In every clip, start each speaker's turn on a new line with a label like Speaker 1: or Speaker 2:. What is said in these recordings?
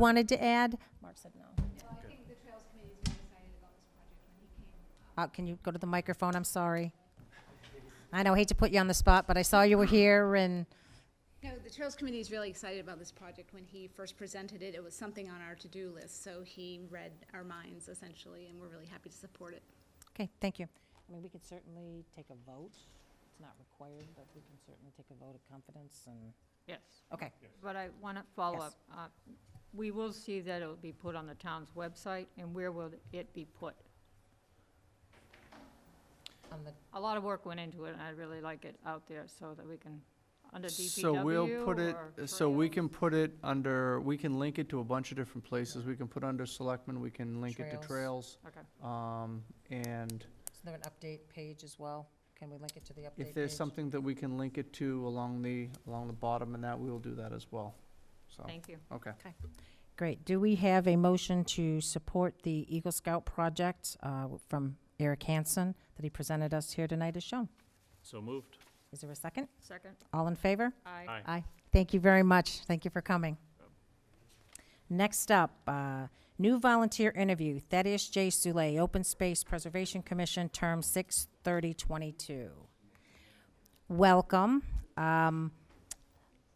Speaker 1: wanted to add? Mark said no. Uh, Can you go to the microphone? I'm sorry. I know, I hate to put you on the spot, but I saw you were here and,
Speaker 2: No, the Trails Committee is really excited about this project. When he first presented it, it was something on our to-do list, so he read our minds essentially, and we're really happy to support it.
Speaker 1: okay, thank you.
Speaker 3: I mean, we could certainly take a vote. It's not required, but we can certainly take a vote of confidence and,
Speaker 4: Yes,
Speaker 1: Okay,
Speaker 4: but I want to follow
Speaker 1: Yes.
Speaker 4: up. Uh, We will see that it'll be put on the town's website, and where will it be put?
Speaker 1: on Um, the,
Speaker 4: A lot of work went into it, and I'd really like it out there so that we can, under
Speaker 5: So
Speaker 4: DPW
Speaker 5: we'll put it, uh,
Speaker 4: or
Speaker 5: so we
Speaker 4: trails.
Speaker 5: can put it under, we can link it to a bunch of different places. We can put under selectmen, we can link it to trails.
Speaker 4: Okay.
Speaker 5: Um, and
Speaker 1: is there an update page as well? Can we link it to the update page?
Speaker 5: if there's something that we can link it to along the, along the bottom and that, we will do that as well. So,
Speaker 4: Thank you.
Speaker 5: okay.
Speaker 1: Great. Do we have a motion to support the Eagle Scout project uh, from Eric Hansen that he presented us here tonight as shown?
Speaker 6: So moved.
Speaker 1: Is there a second?
Speaker 4: Second,
Speaker 1: All in favor?
Speaker 4: aye.
Speaker 6: Aye.
Speaker 1: Thank you very much. Thank you for coming. Next up, uh, new volunteer interview, Thaddeus J. Sule, Open Space Preservation Commission, term 6/30/22. Welcome. Um,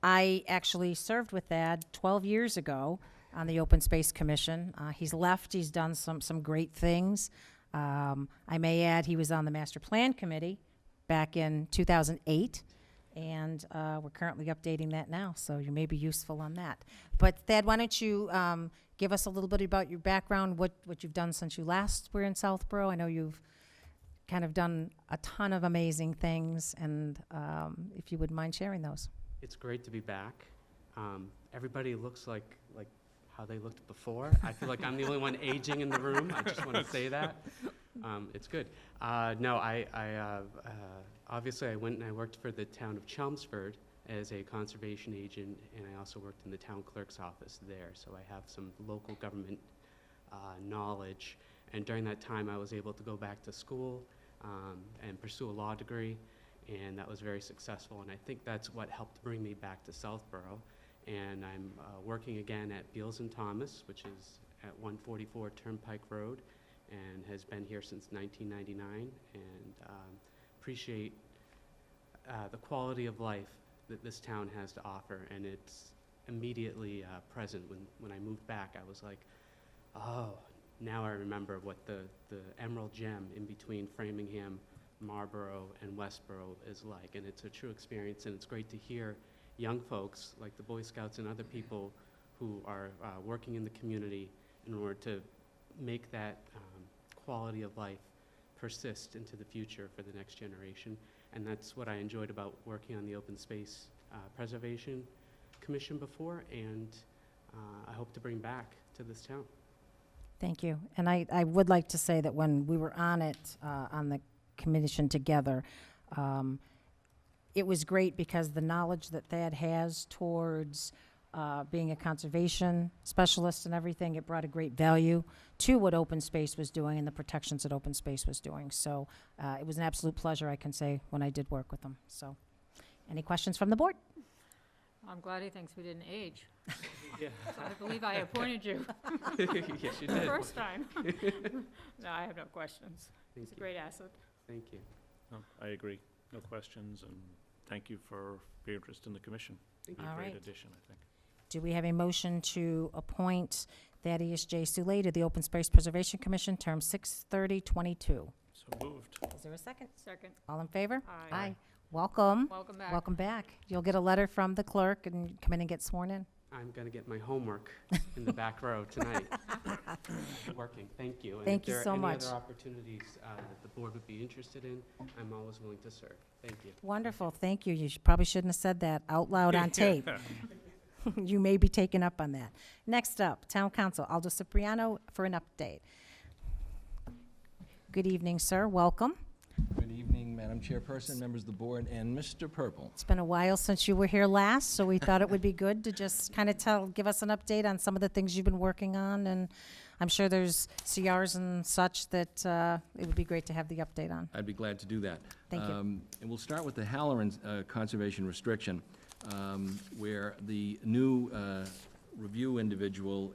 Speaker 1: I actually served with Thad 12 years ago on the Open Space Commission. Uh, he's left, he's done some, some great things. Um, I may add, he was on the Master Plan Committee back in 2008, and uh, we're currently updating that now, so you may be useful on that. But Thad, why don't you um, give us a little bit about your background, what, what you've done since you last were in Southborough? I know you've kind of done a ton of amazing things, and um, if you wouldn't mind sharing those.
Speaker 7: It's great to be back. Um, everybody looks like like how they looked before. I feel like I'm the only one aging in the room. I just want to say that. Um, it's good. Uh, no, I, I uh, uh, obviously I went and I worked for the town of Chelmsford as a conservation agent, and I also worked in the town clerk's office there. So I have some local government uh, knowledge. And during that time, I was able to go back to school um, and pursue a law degree, and that was very successful. And I think that's what helped bring me back to Southborough. And I'm uh, working again at Beals and Thomas, which is at 144 Turnpike Road, and has been here since 1999. And um, appreciate uh, the quality of life that this town has to offer, and it's immediately uh, present. When when I moved back, I was like, Oh, now I remember what the, the emerald gem in between Framingham, Marlborough, and Westborough is like. And it's a true experience, and it's great to hear young folks, like the Boy Scouts and other people who are uh, working in the community in order to make that um, quality of life persist into the future for the next generation. And that's what I enjoyed about working on the Open Space uh, Preservation Commission before, and uh, I hope to bring back to this town.
Speaker 1: Thank you. And I, I would like to say that when we were on it, uh, on the commission together, um, it was great because the knowledge that Thad has towards uh, being a conservation specialist and everything, it brought a great value to what Open Space was doing and the protections that Open Space was doing. So uh, it was an absolute pleasure, I can say, when I did work with them. So, any questions from the board?
Speaker 4: I'm glad he thinks we didn't age. I believe I appointed you
Speaker 7: yes, you
Speaker 4: the
Speaker 7: did.
Speaker 4: first time. No, I have no questions.
Speaker 7: Thank
Speaker 4: It's a
Speaker 7: you.
Speaker 4: great asset.
Speaker 7: Thank you.
Speaker 6: No, I agree. No questions, and thank you for your interest in the commission.
Speaker 7: Thank
Speaker 6: You're
Speaker 1: All
Speaker 6: a great
Speaker 1: right.
Speaker 6: addition, I think.
Speaker 1: Do we have a motion to appoint Thaddeus J. Sule to the Open Space Preservation Commission, term 6/30/22?
Speaker 6: So moved.
Speaker 1: Is there a second?
Speaker 4: Second,
Speaker 1: All in favor?
Speaker 4: aye.
Speaker 1: Aye. Welcome,
Speaker 4: Welcome back.
Speaker 1: welcome back. You'll get a letter from the clerk and come in and get sworn in.
Speaker 7: I'm going to get my homework in the back row tonight. Working, thank you.
Speaker 1: Thank you so
Speaker 7: And if
Speaker 1: much.
Speaker 7: there are any other opportunities uh, that the board would be interested in, I'm always willing to serve. Thank you.
Speaker 1: Wonderful, thank you. You sh- probably shouldn't have said that out loud on tape. You may be taken up on that. Next up, Town Council, Aldo Cipriano for an update. Good evening, sir, welcome.
Speaker 8: Good evening, Madam Chairperson, members of the board, and Mr. Purple.
Speaker 1: It's been a while since you were here last, so we thought it would be good to just kind of tell, give us an update on some of the things you've been working on, and I'm sure there's CRs and such that uh, it would be great to have the update on.
Speaker 8: I'd be glad to do that.
Speaker 1: Thank you.
Speaker 8: Um, And we'll start with the Halloran uh, Conservation Restriction, um, where the new uh, review individual